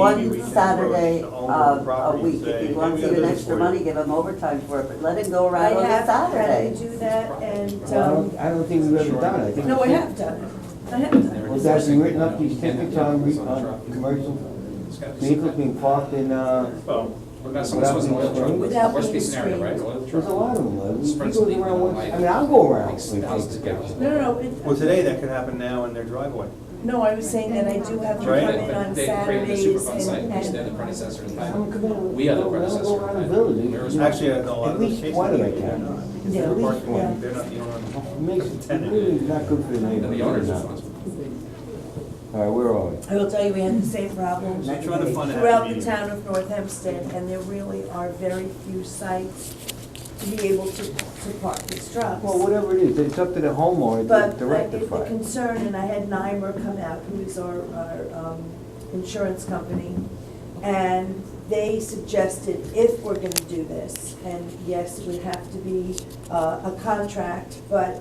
One Maybe we Saturday can approach of the owner a of the week, property and if he say, wants "Hey, even we got extra this for you." money, give him overtime for it, but let him go I around on a have Saturday. tried to do that and, Well, I um, don't, I don't think we've ever done it. I think no, I it's- have done it. I have done Well, that's been written up, these tickets on, re- on uh, commercial vehicles being parked in, uh, Well, What about someone who was an oil truck? Without Worst being case scenario, right, oil truck. there's a lot of them. uh, we- We Sprinkles go leak around, once- like I mean, I'll go around. six with thousand tickets. it. No, no, no, well, it, today that could happen now in their driveway. no, I was saying that I do have to come Right. in on They created the Saturdays Superfund site, and, which they're the and, predecessor in I don't time. come in. We are the I'll- I'll predecessor. go around the village. We're you know. Actually, in a lot of At those least cases, twenty I they're not, can. because Yeah, they're at least parking, lot, one. they're not the owner. Makes, it really not good for the And the owner's neighborhood. responsible. All right, where are we? I will tell you, we had the same problem They're trying to fund it. throughout the town of North Hempstead, and there really are very few sites to be able to, to park these trucks. Well, whatever it is, it's up to the homeowner But to- I- to the the rectify. it. concern, and I had Nymer come out, who is our, our um, insurance company, and they suggested if we're gonna do this, and yes, it would have to be uh, a contract, but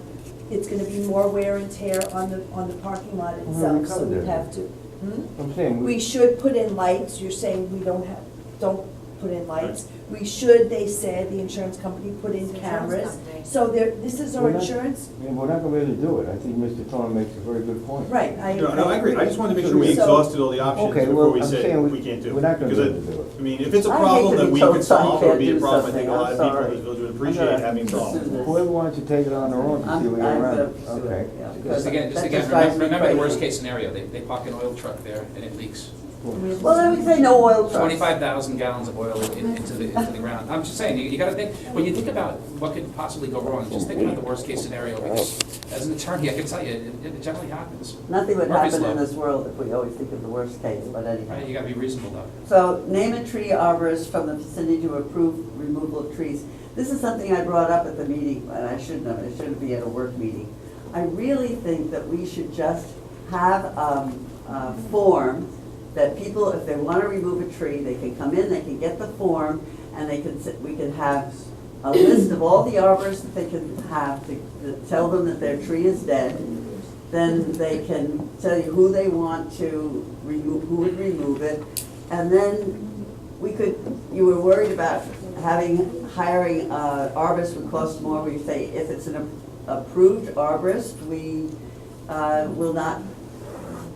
it's gonna be more wear and tear on the, on the parking lot we itself, so covered we'd it. have to. Hmm? I'm saying, We we, should put in lights, you're saying we don't have, don't put in lights. We should, they said, the insurance company, put in Insurance cameras. company. So there, this is our We're not- insurance, yeah, we're not gonna be able to do it. I think Mr. Thorne makes a very good point. right, I. No, no, I agree, I just wanted to make sure we So- exhausted all the options Okay, before well, we I'm said saying we can't do it. we're not gonna be Because able to do it. I mean, if it's a I hate problem to that be we told could someone solve, it would can't be a do problem, I think a something. lot of I'm people in sorry. this village would I'm appreciate gonna having pursue solved. this. Whoever wants to take it on their own, to see I'm, what I'm you're around. gonna pursue Okay. it, yeah. because Just again, just that again, drives remember, me remember the crazy. worst case scenario, they, they park an oil truck there and it leaks. Well, I would say no oil trucks. Twenty-five thousand gallons of oil in- into the, into the ground. I'm just saying, you, you gotta think, when you think about what could possibly go wrong, just think about the worst case scenario. Because as an attorney, I can tell you, it, it generally happens. Nothing would Murphy's happen in Law. this world if we always think of the worst case, but Right, anyhow. you gotta be reasonable though. So name a tree arborist from the vicinity to approve removal of trees. This is something I brought up at the meeting, and I shouldn't have, it shouldn't be at a work meeting. I really think that we should just have um, a form that people, if they want to remove a tree, they can come in, they can get the form, and they can, sit- we can have a list of all the arborists that they can have to to tell them that their tree is dead, then they can tell you who they want to remove, who would remove it. And then we could, you were worried about having, hiring uh, arborist would cost more. We say if it's an approved arborist, we uh, will not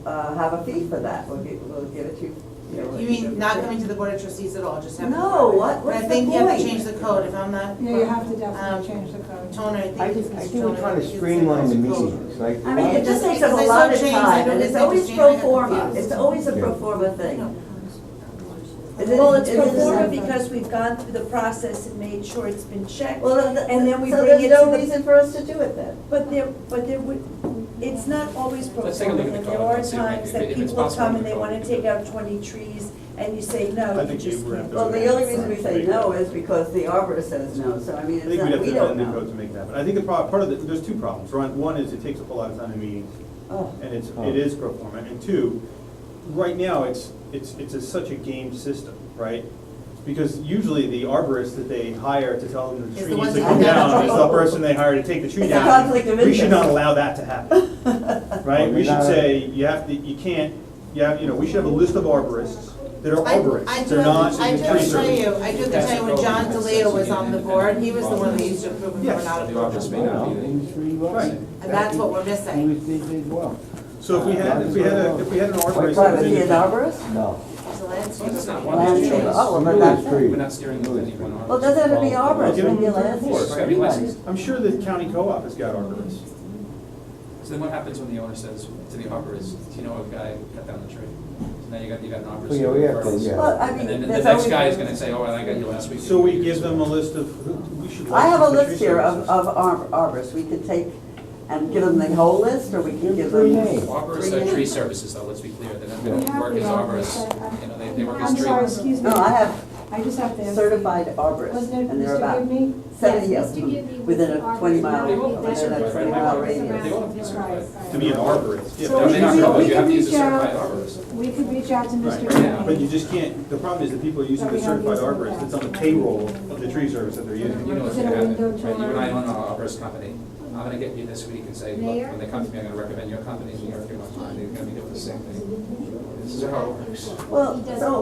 uh, have a fee for that. We'll give, we'll give it to you. know, You mean not coming to the board of trustees at all, just having. No, what- But what's I the think you have to point? change the code, if I'm not. Yeah, you have to Um, definitely change the code. Toner, I think. I it's think, I Mr. think we're Toner, trying to it's streamline the Mr. Toner. meetings, like. I mean, it just takes up a Because I saw lot of change, I time, and noticed it's I always just changed, I pro got forma, confused. it's always a pro forma No. thing. Is it- Well, it's is it- performed because we've gone through the process and made sure it's been checked, Well, th- and then we so bring it to there's no the. reason for us to do it then. But there, but there would, it's not always Let's take a look at performed, the and there code are and see if it- times if that it- if it's people will possible come we and they can wanna do take it. out twenty trees, and you say, no, I you think just you were can't. at Well, do the that." only reason we say no is because the arborist says no, so I mean, I it's think we'd not, have we to don't amend the code to know. make that, but I think the prob, part of the, there's two problems, right? One is it takes up a lot of time in meetings, Oh, and it's, it is pro forma, and two, right now, it's, it's, it's a- such a game system, right? Because usually the arborist that they hire to tell them the the tree needs ones to that come come down down. is the person they hire to take the tree It's a down. conflict of We should not interest. allow that to happen, Oh. right? Well, We you're should not- say, you have to, you can't, you have, you know, we should have a list of arborists that are I, arborists, I do they're have, not to- I do tree have to tell service. you, I do have to tell you, when John DeLeo was on the board, he was the one that used to approve them Yes. or not The approve office them. may not be there. Right. And that's what we're He missing. was, he did well. So if we had, if we had, a if we had an arborist. But that was is he an independent- arborist? No. So that's- Well, that's not one of the Landscaper, choices. oh, well, then Really that's it. free. We're not steering with anyone on. Well, it doesn't have to be Well, arborist, give it could be a him three or four. landscaper, It's gotta be anybody. licensed. I'm sure the county co-op has got arborists. So then what happens when the owner says to the arborist, you know, a guy cut down the tree? So now you got, you got an Well, arborist. yeah, we have to, referrals. yeah. Well, I mean, And then the there's next always- guy is gonna say, oh, I got you last week. So we give them a list of, who- we should. I have a license the list tree here of, services. of ar- arborists, we could take and give them the whole list, or we could give Three them. names. Arborists are tree services, though, let's be clear, they're not, they We don't have work the as arborist, arborists, I- you know, they, they work as I'm trees. sorry, excuse me. No, I have I just have to ask. certified arborists, Wasn't it and they're Mr. about Gibney? seventy Yes, of Mr. Gibney them, was within the a twenty arborist. mile, They will be within a certified, twenty right? mile They radius. will be certified. To be an arborist. Yeah, So but we they're not can- gonna- we you can have to use a reach out- certified arborist. We could reach out to Mr. Right, but you Gibney. just can't, the problem is that people are using But we the have certified these other arborist, it's on the guys. payroll of the tree service that they're You using. know what's Is it gonna a happen, window right? You and I tour? own an arborist company, I'm gonna get you this week and say, look, Mayor? when they come to me, I'm gonna recommend your company, and you're gonna be doing the same thing. It's this is how it works. Well, He doesn't so